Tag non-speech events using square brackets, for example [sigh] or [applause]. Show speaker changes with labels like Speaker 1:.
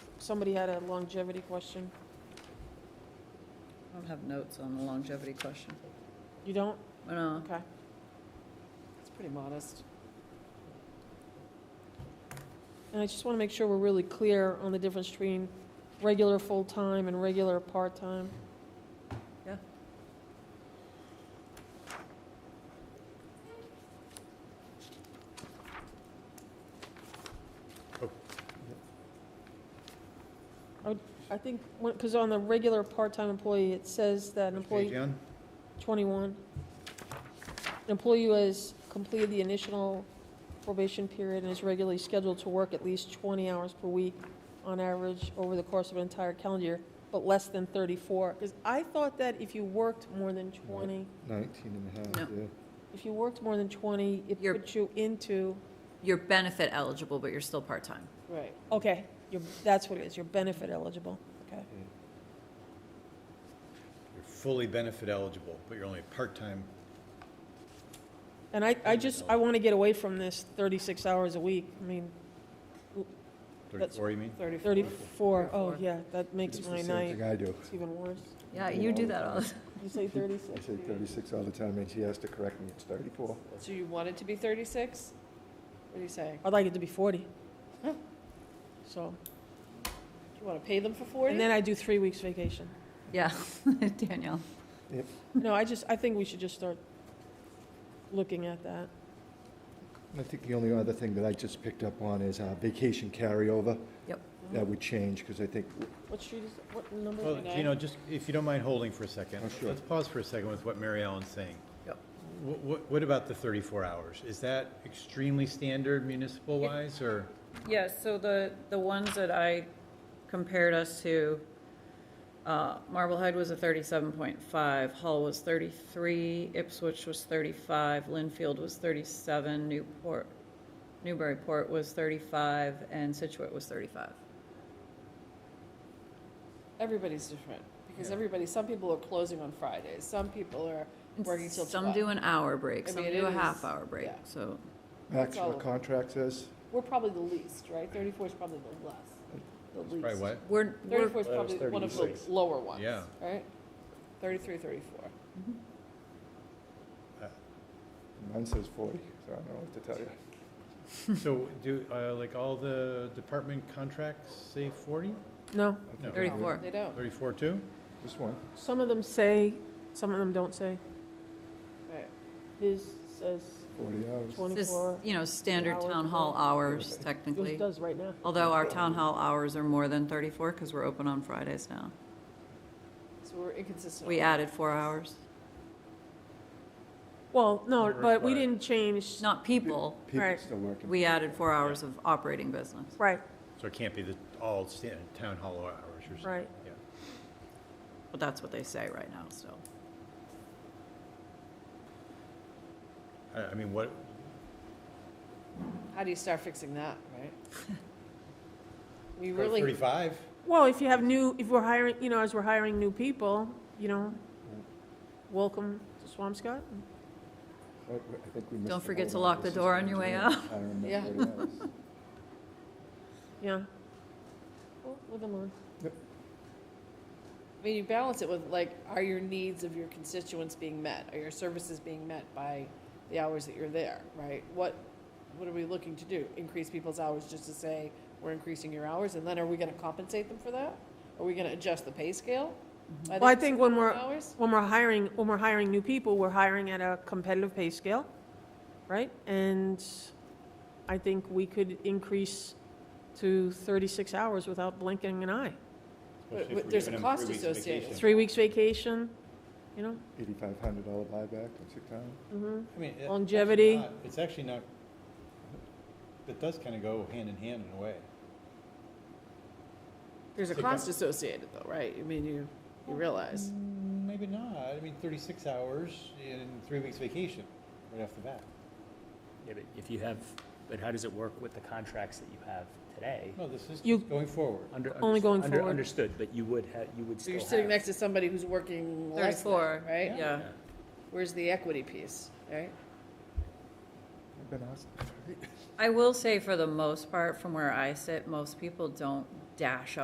Speaker 1: somebody had a longevity question.
Speaker 2: I don't have notes on the longevity question.
Speaker 1: You don't?
Speaker 2: Oh, No,
Speaker 1: Okay. It's pretty modest. And I just want to make sure we're really clear on the difference between regular full-time and regular part-time.
Speaker 2: Yeah.
Speaker 3: Oh.
Speaker 1: I would- I think, because on the regular part-time employee, it says that an
Speaker 3: Which
Speaker 1: employee.
Speaker 3: page, Jan?
Speaker 1: 21. An employee who has completed the initial probation period and is regularly scheduled to work at least 20 hours per week on average over the course of an entire calendar year, but less than 34. Because I thought that if you worked more than 20,
Speaker 3: 19 and a half, yeah.
Speaker 1: if you worked more than 20, it
Speaker 2: You're-
Speaker 1: put you into.
Speaker 2: you're benefit eligible, but you're still part-time.
Speaker 1: Right. Okay, you're- that's what it is, you're benefit eligible, okay.
Speaker 4: You're fully benefit eligible, but you're only part-time.
Speaker 1: And I, I just, I want to get away from this 36 hours a week, I mean, That's-
Speaker 4: 34, you mean?
Speaker 1: 34, oh,
Speaker 2: 34.
Speaker 1: yeah, that makes
Speaker 3: It's the
Speaker 1: my
Speaker 3: same
Speaker 1: night,
Speaker 3: thing I do.
Speaker 1: it's even worse.
Speaker 2: Yeah, you do that all the
Speaker 1: You say
Speaker 3: I
Speaker 1: 36?
Speaker 3: say 36 all the time, and she has to correct me, it's 34.
Speaker 5: So you want it to be 36? What are you saying?
Speaker 1: I'd like it to be 40. So,
Speaker 5: You want to pay them for 40?
Speaker 1: and then I do three weeks vacation.
Speaker 2: Yeah, [laughs] Danielle.
Speaker 1: No, I just, I think we should just start looking at that.
Speaker 3: I think the only other thing that I just picked up on is uh, vacation carryover.
Speaker 2: Yep.
Speaker 3: That would change, because I think,
Speaker 1: What street is, what number?
Speaker 4: Well,
Speaker 1: is
Speaker 5: Nine.
Speaker 4: Gino, just, if you don't mind holding for a second.
Speaker 3: Oh, sure.
Speaker 4: Let's pause for a second with what Mary Ellen's saying.
Speaker 2: Yep.
Speaker 4: What, what about the 34 hours? Is that extremely standard municipal-wise, or?
Speaker 2: Yeah, so the, the ones that I compared us to, uh, Marblehead was a thirty-seven point five, Hull was thirty-three, Ipswich was thirty-five, Linfield was thirty-seven, Newport, Newburyport was thirty-five, and Situate was thirty-five.
Speaker 5: Everybody's different, because
Speaker 4: Yeah.
Speaker 5: everybody, some people are closing on Fridays, some people are working till 12.
Speaker 2: Some do an hour break,
Speaker 5: I
Speaker 2: some
Speaker 5: mean,
Speaker 2: do
Speaker 5: it
Speaker 2: a
Speaker 5: is-
Speaker 2: half-hour break,
Speaker 5: yeah.
Speaker 2: so,
Speaker 3: that's
Speaker 5: all
Speaker 3: what
Speaker 5: of it.
Speaker 3: contract says.
Speaker 5: We're probably the least, right? 34 is probably the less, the least.
Speaker 4: Probably what?
Speaker 2: we're, we're,
Speaker 5: 34 is
Speaker 3: Well, it was
Speaker 5: probably one of the
Speaker 3: 36.
Speaker 5: lower ones,
Speaker 4: Yeah.
Speaker 5: right? 33, 34.
Speaker 3: Mine says 40, so I don't know what to tell you.
Speaker 4: So do, uh, like, all the department contracts say 40?
Speaker 1: No,
Speaker 3: I
Speaker 4: No.
Speaker 3: think it would.
Speaker 2: Thirty-four.
Speaker 5: They don't,
Speaker 4: 34 too?
Speaker 3: This one.
Speaker 1: some of them say, some of them don't say.
Speaker 5: right.
Speaker 1: His says
Speaker 3: 40 hours.
Speaker 2: this,
Speaker 1: 24.
Speaker 2: you know, standard
Speaker 1: Hours
Speaker 2: town
Speaker 1: of
Speaker 2: hall
Speaker 1: work.
Speaker 2: hours
Speaker 1: It
Speaker 2: technically.
Speaker 1: does right now.
Speaker 2: Although our town hall hours are more than 34 because we're open on Fridays now.
Speaker 5: So we're inconsistent.
Speaker 2: We
Speaker 5: on that.
Speaker 2: added four hours.
Speaker 1: Well, no,
Speaker 4: Not
Speaker 1: but we
Speaker 4: required.
Speaker 1: didn't change,
Speaker 2: Not people,
Speaker 3: People
Speaker 1: Right.
Speaker 3: still working.
Speaker 2: we added four hours of operating business.
Speaker 1: right,
Speaker 4: So it can't be the, all sta- town hall hours, you're saying?
Speaker 1: Right.
Speaker 4: Yeah.
Speaker 2: But that's what they say right now still.
Speaker 4: I, I mean, what,
Speaker 5: How do you start fixing that, right? We
Speaker 4: go
Speaker 5: really,
Speaker 4: 35?
Speaker 1: well, if you have new, if we're hiring, you know, as we're hiring new people, you know, welcome to Swampscott.
Speaker 3: Oh, I- I think we missed
Speaker 2: Don't
Speaker 3: the
Speaker 2: forget to
Speaker 3: whole
Speaker 2: lock
Speaker 3: office
Speaker 2: the
Speaker 3: is
Speaker 2: door on your way
Speaker 3: engineering,
Speaker 2: out.
Speaker 3: hiring
Speaker 5: Yeah.
Speaker 3: and 40 hours.
Speaker 1: yeah. Well, Live and learn.
Speaker 5: I mean, you balance it with like, are your needs of your constituents being met? Are your services being met by the hours that you're there, right? What, what are we looking to do? Increase people's hours just to say, we're increasing your hours, and then are we gonna compensate them for that? Are we gonna adjust the pay scale? by
Speaker 1: Well, I
Speaker 5: the
Speaker 1: think when we're,
Speaker 5: Hours?
Speaker 1: when we're hiring, when we're hiring new people, we're hiring at a competitive pay scale, right? And I think we could increase to 36 hours without blinking an eye.
Speaker 5: But- but there's a cost associated.
Speaker 1: Three weeks vacation, you know?
Speaker 3: $8,500 buyback on sick time.
Speaker 1: Mhm.
Speaker 4: I mean, it-
Speaker 1: Longevity.
Speaker 4: it's not- It's actually not, it does kind of go hand in hand in a way.
Speaker 5: There's a
Speaker 4: Take
Speaker 5: cost
Speaker 4: that-
Speaker 5: associated though, right? I mean, you, you realize.
Speaker 4: Mm, Maybe not. I mean, 36 hours and three weeks vacation right off the bat.
Speaker 6: Yeah, but if you have, but how does it work with the contracts that you have today?
Speaker 4: No, this is
Speaker 1: You-
Speaker 4: just going forward.
Speaker 6: Under-
Speaker 1: Only
Speaker 6: underst-
Speaker 1: going
Speaker 6: under-
Speaker 1: forward.
Speaker 6: Understood, but you would have, you would
Speaker 5: So
Speaker 6: still
Speaker 5: you're
Speaker 6: have.
Speaker 5: sitting next to somebody who's working less than,
Speaker 2: 34,
Speaker 5: right?
Speaker 2: Yeah.
Speaker 5: Where's the equity piece, right?
Speaker 3: I've been asked.
Speaker 2: I will say for the most part, from where I sit, most people don't dash up.